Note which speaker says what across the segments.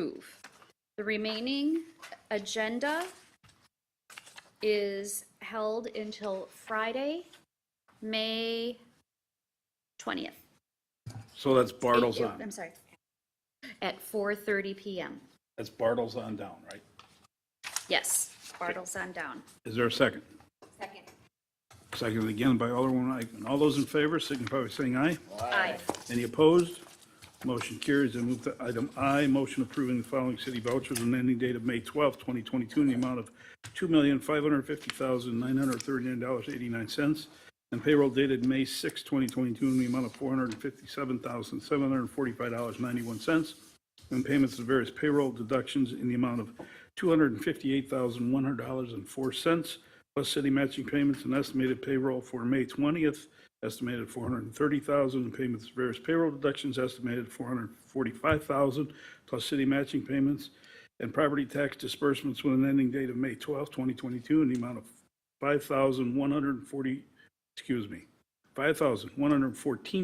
Speaker 1: approve. The remaining agenda is held until Friday, May 20th.
Speaker 2: So that's Bartles
Speaker 1: Eight-
Speaker 2: on,
Speaker 1: I'm sorry. At 4:30 PM.
Speaker 2: that's Bartles on down, right?
Speaker 1: Yes, Bartles on down.
Speaker 2: Is there a second? Second. Seconded again by Alderman Eichman. All those in favor signify by saying aye.
Speaker 1: Aye.
Speaker 2: Any opposed? Motion carries. I move to item I, motion approving the following city vouchers on ending date of May 12th, 2022, in the amount of $2,550,939.89, and payroll dated May 6th, 2022, in the amount of $457,745.91, and payments to various payroll deductions in the amount of $258,100.04, plus city matching payments and estimated payroll for May 20th, estimated 430,000, and payments to various payroll deductions estimated 445,000, plus city matching payments and property tax disbursements with an ending date of May 12th, 2022, in the amount of 5,140, excuse me,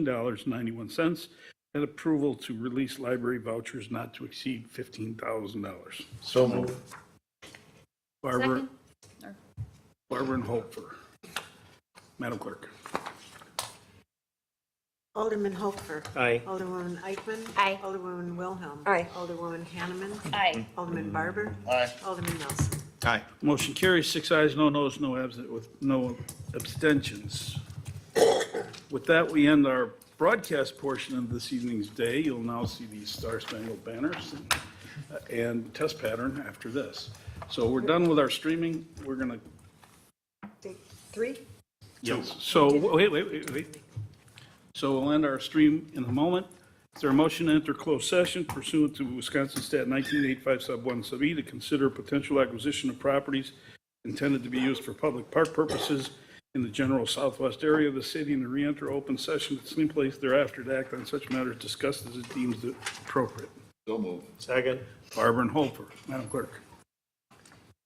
Speaker 2: $5,114.91, and approval to release library vouchers not to exceed $15,000.
Speaker 3: So move.
Speaker 2: Barbara,
Speaker 1: Or-
Speaker 2: Barbara and Hofer. Madam Clerk.
Speaker 4: Alderman Hofer.
Speaker 5: Aye.
Speaker 4: Alderwoman Eichman.
Speaker 1: Aye.
Speaker 4: Alderwoman Wilhelm.
Speaker 6: Aye.
Speaker 4: Alderwoman Hanneman.
Speaker 1: Aye.
Speaker 2: Mm.
Speaker 4: Alderman Barber.
Speaker 3: Aye.
Speaker 4: Alderman Nelson.
Speaker 3: Aye.
Speaker 2: Motion carries, six ayes, no noes, no absent, with no abstentions. With that, we end our broadcast portion of this evening's day. You'll now see the Star Spangled Banners and test pattern after this. So we're done with our streaming. We're gonna,
Speaker 6: Take Three?
Speaker 2: yes, so, wait, wait, wait, wait. So we'll end our stream in a moment. Is there a motion to enter closed session pursuant to Wisconsin Stat 1985 Sub 1 Sub E to consider potential acquisition of properties intended to be used for public park purposes in the general southwest area of the city and to re-enter open session at any place thereafter to act on such matters discussed as it deems appropriate?
Speaker 3: So move.
Speaker 5: Second.
Speaker 2: Barbara and Holfer, Madam Clerk.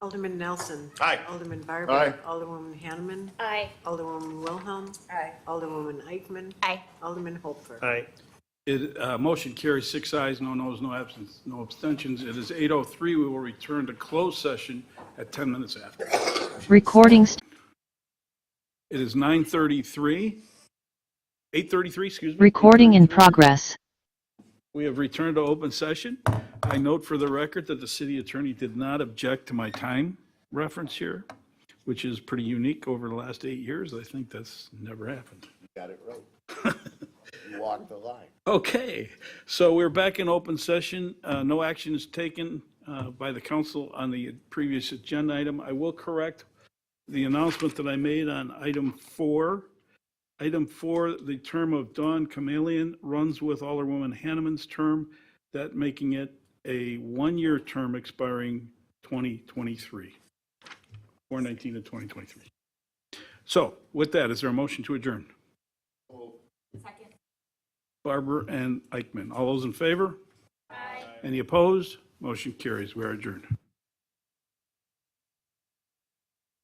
Speaker 4: Alderman Nelson.
Speaker 3: Aye.
Speaker 4: Alderman Barber.
Speaker 3: Aye.
Speaker 4: Alderwoman Hanneman.
Speaker 1: Aye.
Speaker 4: Alderwoman Wilhelm.
Speaker 6: Aye.
Speaker 4: Alderwoman Eichman.
Speaker 1: Aye.
Speaker 4: Alderman Hofer.
Speaker 5: Aye.
Speaker 2: It, uh, motion carries six ayes, no noes, no absence, no abstentions. It is 8:03. We will return to closed session at 10 minutes after.
Speaker 7: Recording
Speaker 2: It is 9:33, 8:33, excuse me.
Speaker 7: recording in progress.
Speaker 2: We have returned to open session. I note for the record that the city attorney did not object to my time reference here, which is pretty unique over the last eight years. I think that's never happened.
Speaker 3: Got it right. You walked the line.
Speaker 2: Okay, so we're back in open session. Uh, No action is taken uh, by the council on the previous agenda item. I will correct the announcement that I made on item four. Item four, the term of Dawn Chameleon runs with Alderwoman Hanneman's term, that making it a one-year term expiring 2023, 419 to 2023. So with that, is there a motion to adjourn? Barber and Eichmann. All those in favor? Aye. Any opposed? Motion carries. We are adjourned.